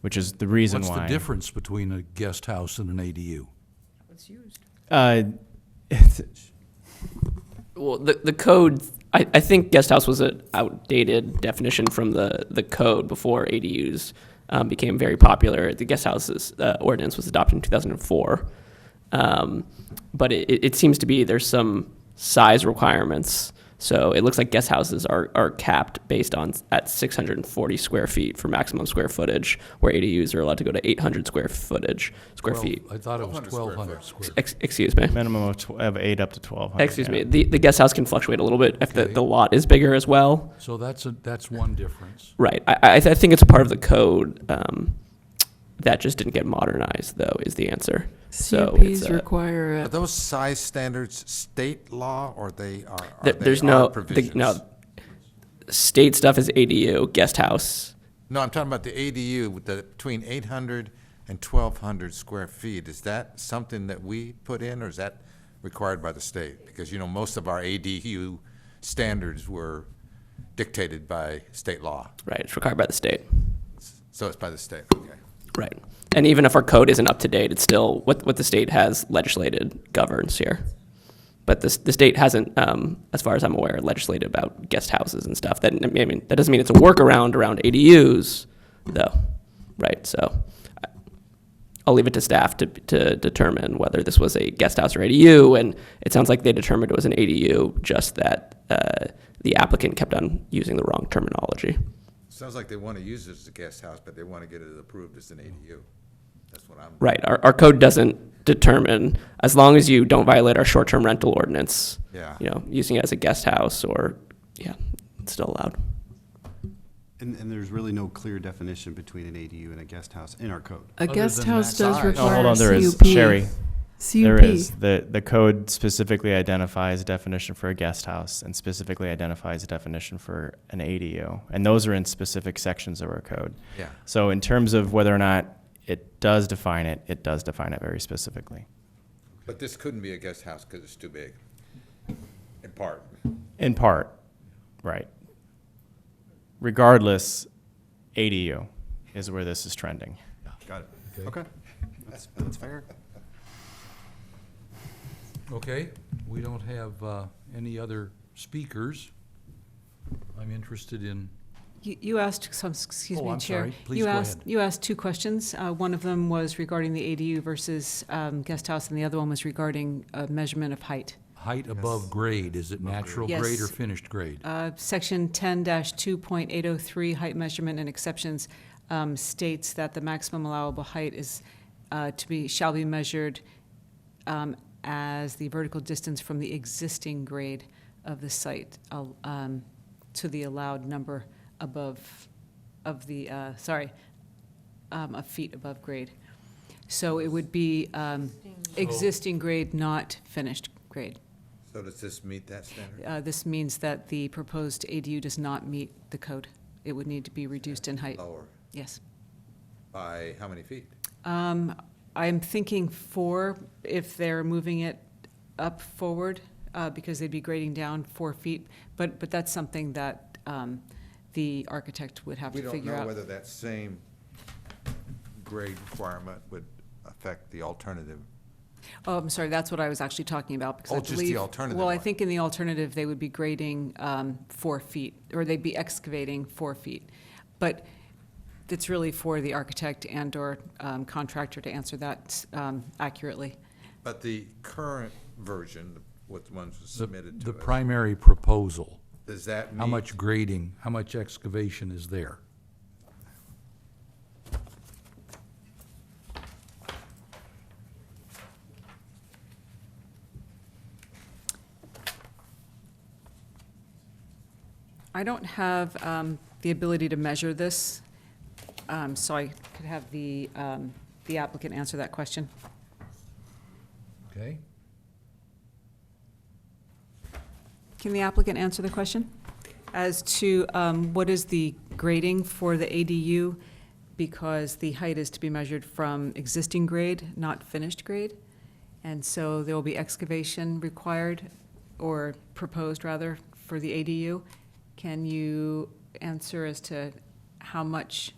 which is the reason What's why. the difference between a guest house and an ADU? Uh, Well, the, the code, I, I think guest house was an outdated definition from the, the code before ADUs um, became very popular. The guest houses uh, ordinance was adopted in 2004. Um, but it, it- it seems to be there's some size requirements. So it looks like guest houses are, are capped based on s- at 640 square feet for maximum square footage, where ADUs are allowed to go to 800 square footage square Well, feet. I thought it was 1,200 1,200 square. Ex- excuse me. minimum of, tw- of eight up to twelve Oh, hundred. Excuse me. The, the guest house can fluctuate a little bit if the, the lot is bigger as well. So that's, a- that's one difference. Right. I, I, I think it's a part of the code um, that just didn't get modernized, though, is the answer. So it's, CUPs uh, require Are a those size standards state law or they are, are there- they there's are no, the, provisions? no state stuff is ADU, guest house. No, I'm talking about the ADU, with the, between 800 and 1,200 square feet. Is that something that we put in, or is that required by the state? Because, you know, most of our ADU standards were dictated by state law. Right. It's required by the state. So it's by the state, okay. Right. And even if our code isn't up to date, it's still what, what the state has legislated governs here. But this, the state hasn't, um, as far as I'm aware, legislated about guest houses and stuff. That, I mean, that doesn't mean it's a workaround around ADUs, though, right? So I- I'll leave it to staff to, to determine whether this was a guest house or ADU. And it sounds like they determined it was an ADU, just that uh, the applicant kept on using the wrong terminology. Sounds like they want to use it as a guest house, but they want to get it approved as an ADU. That's what I'm. Right, our, our code doesn't determine, as long as you don't violate our short-term rental ordinance. Yeah. You know, using it as a guest house or, yeah, it's still allowed. And, and there's really no clear definition between an ADU and a guest house in our code. A Other guest than house that does size. No, require Oh, hold on. There is CUP. Sherry. CUP. There is the the code specifically identifies a definition for a guest house and specifically identifies a definition for an ADU, and those are in specific sections of our code. Yeah. So in terms of whether or not it does define it, it does define it very specifically. But this couldn't be a guest house because it's too big, in part. In part, right. Regardless, ADU is where this is trending. Got it. Okay. That's, that's fair. Okay, we don't have uh, any other speakers. I'm interested in, You you asked some, excuse Oh, me, I'm Chair. sorry. Please You go asked- ahead. You asked two questions. Uh, One of them was regarding the ADU versus um, guest house, and the other one was regarding uh, measurement of height. height above grade, is it natural Yes. grade or finished grade? Uh, Section 10-2.803, height measurement and exceptions, um, states that the maximum allowable height is uh, to be, shall be measured um, as the vertical distance from the existing grade of the site uh, um, to the allowed number above, of the, uh, sorry, um, a feet above grade. So it would be um, existing grade, not finished grade. So does this meet that standard? Uh, This means that the proposed ADU does not meet the code. It would need to be reduced in height, Lower, yes. by how many feet? Um, I'm thinking four, if they're moving it up forward, uh, because they'd be grading down four feet, but, but that's something that um, the architect would have We to don't figure know out. whether that same grade requirement would affect the alternative. Oh, I'm sorry, that's what I was actually talking about, because I Oh, believe. just the alternative Well, I one. think in the alternative, they would be grading um, four feet, or they'd be excavating four feet. But it's really for the architect and/or um, contractor to answer that um, accurately. But the current version, what the ones The- submitted The to us, primary proposal, does that meet? how much grading, how much excavation is there? I don't have um, the ability to measure this, um, so I could have the um, the applicant answer that question. Okay? Can the applicant answer the question as to um, what is the grading for the ADU? Because the height is to be measured from existing grade, not finished grade. And so there will be excavation required, or proposed rather, for the ADU. Can you answer as to how much